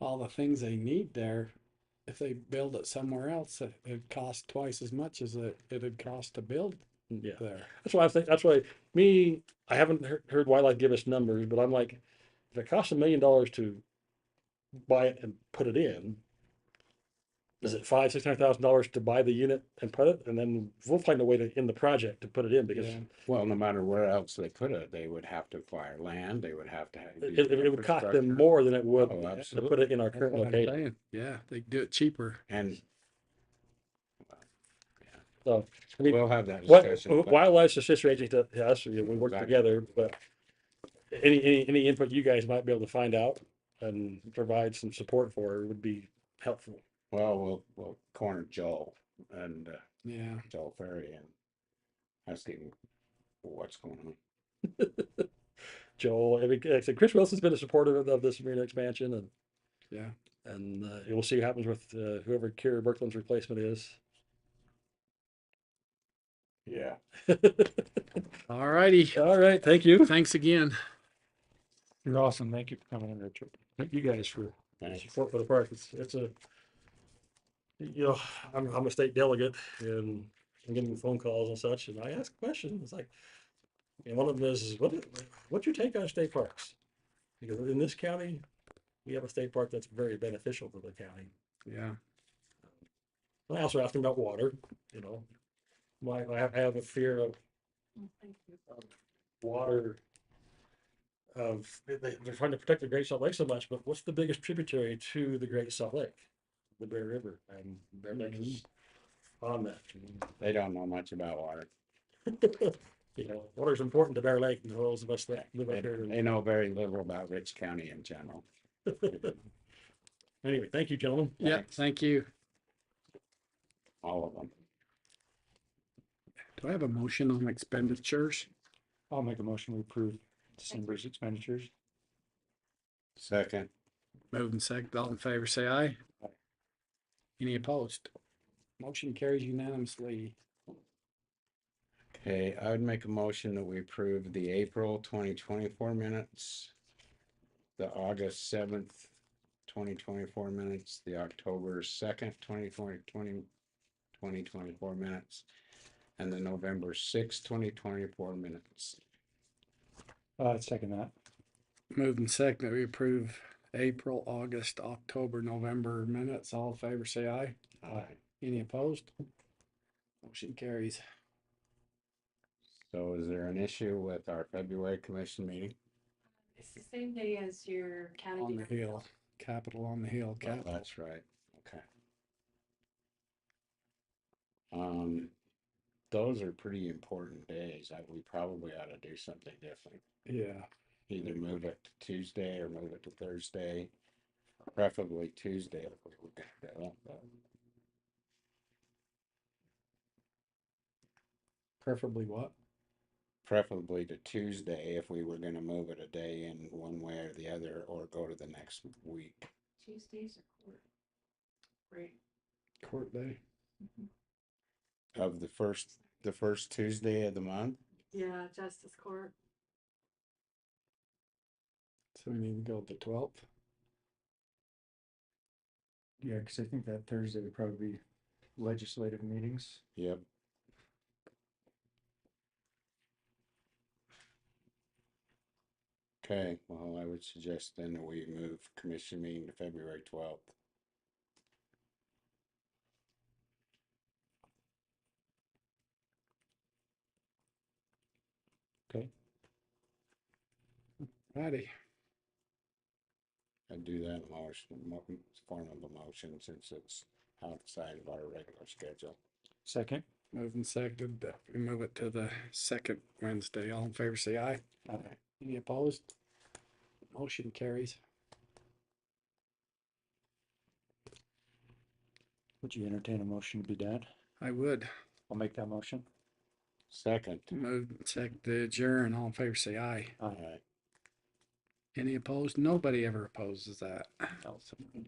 all the things they need there, if they build it somewhere else, it- it'd cost twice as much as it, it'd cost to build Yeah. there. That's why I think, that's why, me, I haven't heard, heard wildlife give us numbers, but I'm like, if it costs a million dollars to buy it and put it in, is it five, six hundred thousand dollars to buy the unit and put it? And then we'll find a way to end the project to put it in because Yeah. Well, no matter where else they could have, they would have to acquire land, they would have to. have it, the it- it would cost them infrastructure. more than it would Oh, to put absolutely, it in our That's current what I'm location. saying. Yeah, they do it cheaper. and So, I mean, we'll have that What, discussion. but- wildlife's a sister agency to to us, we we work Exactly. together, but any, any, any input you guys might be able to find out and provide some support for would be helpful. Well, we'll, we'll corner Joel and uh, Yeah. Joel Ferry and ask him what's going on. Joel, I mean, like I said, Chris Wilson's been a supporter of- of this arena expansion and. Yeah. And uh, we'll see what happens with uh, whoever Kerry Berkland's replacement is. Yeah. All righty. All right, thank you. Thanks again. You're awesome. Thank you for coming in, Richard. Thank you guys for Thanks. support for the park. It's, it's a, you know, I'm, I'm a state delegate and I'm getting phone calls and such, and I ask questions. It's like, and one of them is, is what, what's your take on state parks? Because in this county, we have a state park that's very beneficial to the county. Yeah. And I also asked him about water, you know. My, I have, I have a fear of. of Water. Of, they, they- they're trying to protect the Great Salt Lake so much, but what's the biggest tributary to the Great Salt Lake? The Bear River and Bear Lake is on that. They don't know much about water. You know, water's important to Bear Lake and the those of us that live They up here. they know very little about Rich County in general. Anyway, thank you, gentlemen. Yeah. Thanks. Thank you. All of them. Do I have a motion on expenditures? I'll make a motion to approve December's expenditures. Second, Moving second, all in favor, say aye. Any opposed? Motion carries unanimously. okay, I would make a motion that we approve the April twenty twenty-four minutes, the August seventh, twenty twenty-four minutes, the October second, 2020 20 2024 minutes, and the November sixth, twenty twenty-four minutes. Uh, second that. Moving second, we approve April, August, October, November minutes. All in favor, say aye. Aye. Any opposed? Motion carries. So is there an issue with our February commission meeting? It's the same day as your county. On the director. hill, capital on the hill, Well, capital. That's right, okay. Um, those are pretty important days. I, we probably ought to do something different. Yeah. Either move it to Tuesday or move it to Thursday, preferably Tuesday. if we could get that up, but- Preferably what? Preferably to Tuesday if we were gonna move it a day in one way or the other, or go to the next week. Tuesdays are court. Right. Court day. Of the first, the first Tuesday of the month, Yeah, justice court. So we need to go the twelfth. Yeah, because I think that Thursday would probably be legislative meetings. yep. Okay, well, I would suggest then that we move commission meeting to February twelfth. Righty. I'd do that in motion, mo- form of a motion since it's outside of our regular schedule. Second. Moving second, that we move it to the second Wednesday. All in favor, say aye. Aye. Any opposed? Motion carries. Would you entertain a motion to be done? I would I'll make that motion. Second, move second to adjourn. All in favor, say aye. all right. Any opposed? Nobody ever opposes that.